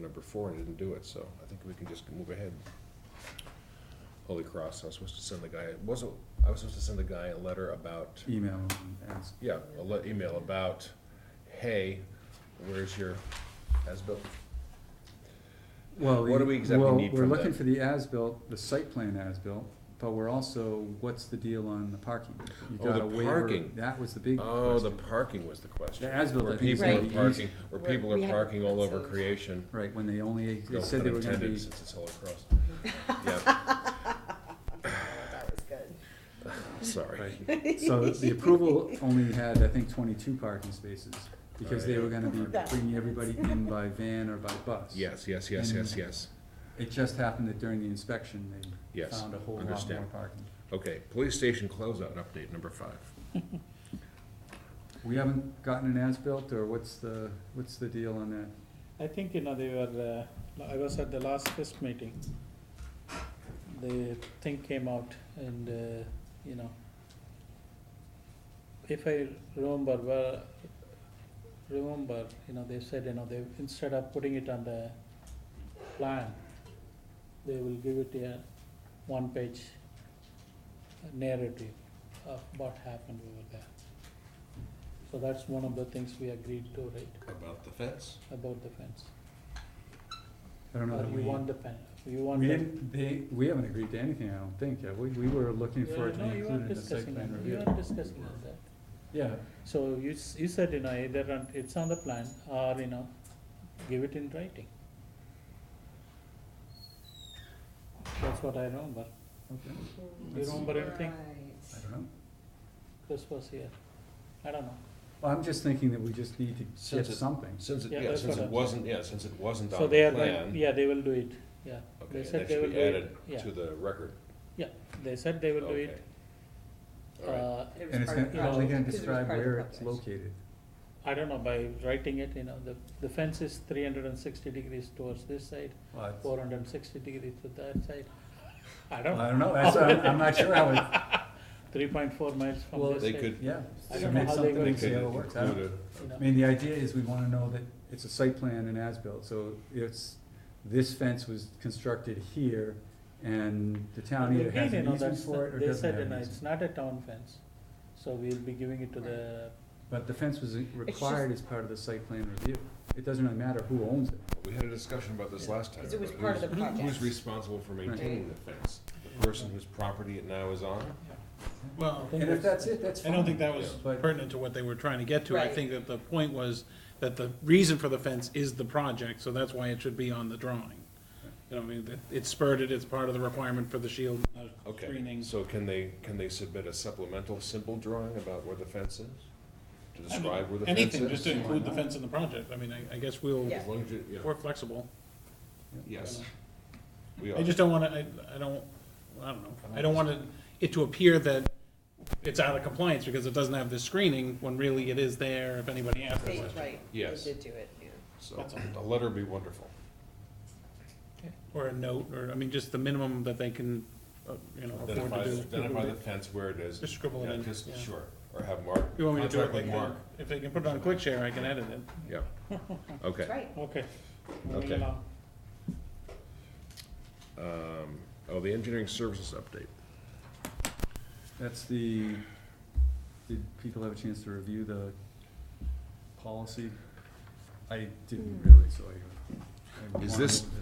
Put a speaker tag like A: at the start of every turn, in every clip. A: number four and didn't do it, so I think we can just move ahead. Holy Cross, I was supposed to send the guy, wasn't, I was supposed to send the guy a letter about,
B: email and ask.
A: yeah, a le- email about, hey, where's your as-built?
B: Well,
A: What do we exactly
B: well,
A: need from
B: We're looking
A: them?
B: for the as-built, the site plan as-built, but we're also, what's the deal on the parking? You
A: Oh,
B: got
A: the
B: a waiver.
A: parking.
B: That was the big
A: Oh, the
B: question,
A: parking was the question.
B: The as-built,
A: Where
B: I think, is
A: people are
B: gonna be
A: parking- Where
C: Where
A: people are
C: we have-
A: parking all over creation.
B: right, when they only,
A: No
B: they said they
A: pun
B: were gonna
A: intended,
B: be,
A: Since it's Holy Cross. Yeah,
C: That was good.
A: sorry.
B: so the approval only had, I think, twenty-two parking spaces, because they were gonna be
C: Right.
B: bringing everybody in by van or by bus.
A: Yes, yes, yes, yes,
B: Mm-hmm.
A: yes.
B: It just happened that during the inspection, they
A: Yes,
B: found a whole lot more
A: understand.
B: parking.
A: Okay, police station closeout update number five.
B: We haven't gotten an as-built, or what's the, what's the deal on that?
D: I think, you know, they were, uh, I was at the last FIST meeting. The thing came out and, uh, you know, if I remember, well, remember, you know, they said, you know, they, instead of putting it on the plan, they will give it a one-page narrative of what happened over there. So that's one of the things we agreed to, right,
A: About the fence?
D: about the fence.
B: I don't know
D: Or
B: that
D: you
B: we-
D: Uh, want the pen, you want
B: We
D: the.
B: didn't, they, we haven't agreed to anything, I don't think, have we? We were looking for it to
D: No,
B: be
D: you are
B: included in the site
D: discussing,
B: plan
D: on- you
B: review.
D: are discussing on that.
B: Yeah,
D: So you, s- you said, you know, either on- it's on the plan or, you know, give it in writing. That's what I remember.
B: okay,
D: You remember anything?
B: I don't know.
D: This was here. I don't know.
B: Well, I'm just thinking that we just need to get
A: Since it-
B: something.
A: Since it,
D: Yeah,
A: yeah,
D: that's
A: since
D: what
A: it
D: I-
A: wasn't, yeah, since it wasn't on
D: So
A: the
D: they are,
A: plan.
D: going- yeah, they will do it, yeah.
A: Okay,
D: They
A: and
D: said
A: that
D: they will
A: should
D: do
A: be
D: it,
A: added
D: yeah.
A: to the record.
D: They said they will do
A: Okay.
D: it.
A: All right,
D: uh,
C: It was
B: And it's gonna,
C: part of the
B: it's only gonna
C: project, 'cause it was
B: describe
C: part of the
B: where it's
C: project.
B: located.
D: I don't know, by writing it, you know, the, the fence is three hundred and sixty degrees towards this side,
B: Well, it's-
D: four hundred and sixty degrees to that side. I don't
B: I
D: know,
B: don't know, that's, I'm, I'm not sure how it,
D: three point four miles from
B: Well,
D: this
A: they
D: side.
A: could,
B: yeah.
D: I
B: so
D: don't know
B: make
D: how they
B: something
D: will-
A: they
B: and see
A: could
B: how it works. I don't-
A: include
D: you
B: I
D: know.
B: mean, the idea is we wanna know that it's a site plan and as-built, so it's, this fence was constructed here, and the town
D: They
B: either has
D: did, you
B: an
D: know,
B: easement
D: that's the-
B: for it or doesn't have
D: They said, you
B: an
D: know,
B: easement.
D: it's not a town fence, so we'll be giving it to the,
B: But the fence was required as part of the site plan review. It doesn't really matter who owns it.
A: We had a discussion about this last time.
C: 'Cause it was
A: about
C: part of
A: who's-
C: the project.
A: Who's responsible for maintaining the fence? The person whose property it now is on?
E: Well,
B: And if that's it, that's
E: I
B: fine.
E: don't think that was
B: But-
E: pertinent to what they were trying to get to. I
C: Right.
E: think that the point was that the reason for the fence is the project, so that's why it should be on the drawing. You know, I mean, that- it's spurred it, it's part of the requirement for the shield uh,
A: Okay,
E: screening.
A: so can they, can they submit a supplemental simple drawing about where the fence is? To describe where the fence is?
E: Anything, just to include the fence in the project. I mean, I, I guess we'll,
C: Yeah.
A: As long as you, yeah,
E: we're flexible.
A: yes. We are.
E: I just don't wanna, I, I don't, I don't know. I don't want it to appear that it's out of compliance because it doesn't have the screening when really it is there if anybody asks.
C: They-
E: us.
C: Right, they
A: Yes.
C: did do it, yeah.
A: So, a letter would be wonderful.
E: Or a note, or, I mean, just the minimum that they can, uh, you know, afford
A: Identify,
E: to do.
A: identify the fence where it is.
E: Just scribble it
A: Yeah,
E: in,
A: just-
E: yeah.
A: Sure, or have Mark.
E: You want me to do it,
A: contract
E: they
A: with
E: can,
A: Mark.
E: if they can put it on quick share, I can edit it.
A: Yeah,
C: That's
A: okay.
C: right.
D: okay.
A: Okay.
D: Moving along.
A: Um, oh, the engineering services update.
B: That's the, did people have a chance to review the policy? I didn't really, so I. I
A: Is
B: wanna
A: this-
B: move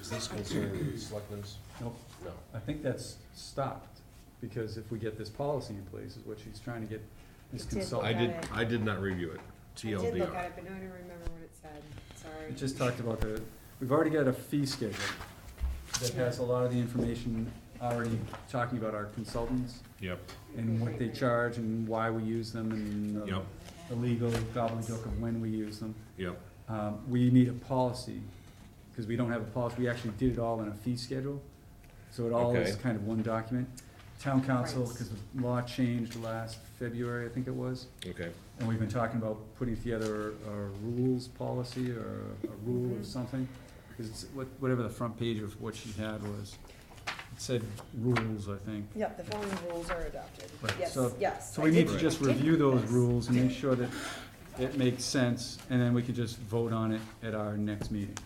A: Is this concerning the selectmen's?
B: Nope,
A: No.
B: I think that's stopped, because if we get this policy in place, is what she's trying to get this
C: It did.
A: I
B: consultant.
A: did,
C: Got it.
A: I did not review it,
C: I did look
A: TLDR.
C: at it, but now I don't remember what it said, sorry.
B: It just talked about the, we've already got a fee schedule that has a lot of the information already talking about our consultants.
A: Yep,
B: and what they charge and why we use them and the
A: Yep.
B: the legal gobbledygook of when we use them.
A: yep,
B: Um, we need a policy, cause we don't have a policy, we actually did it all in a fee schedule, so it all is
A: Okay.
B: kind of one document. Town council,
C: Right.
B: cause the law changed last February, I think it was,
A: okay,
B: and we've been talking about putting together a rules policy or a rule
C: Mm-hmm.
B: or something. Cause it's, what, whatever the front page of what she had was, it said rules, I think.
C: Yep, the following rules are adopted,
B: Right,
C: yes,
B: so-
C: yes.
B: So
C: I
B: we need
C: did-
B: to
A: Right.
B: just
C: I did
B: review those
C: this.
B: rules and make sure that it makes sense, and then we can just vote on it at our next meeting.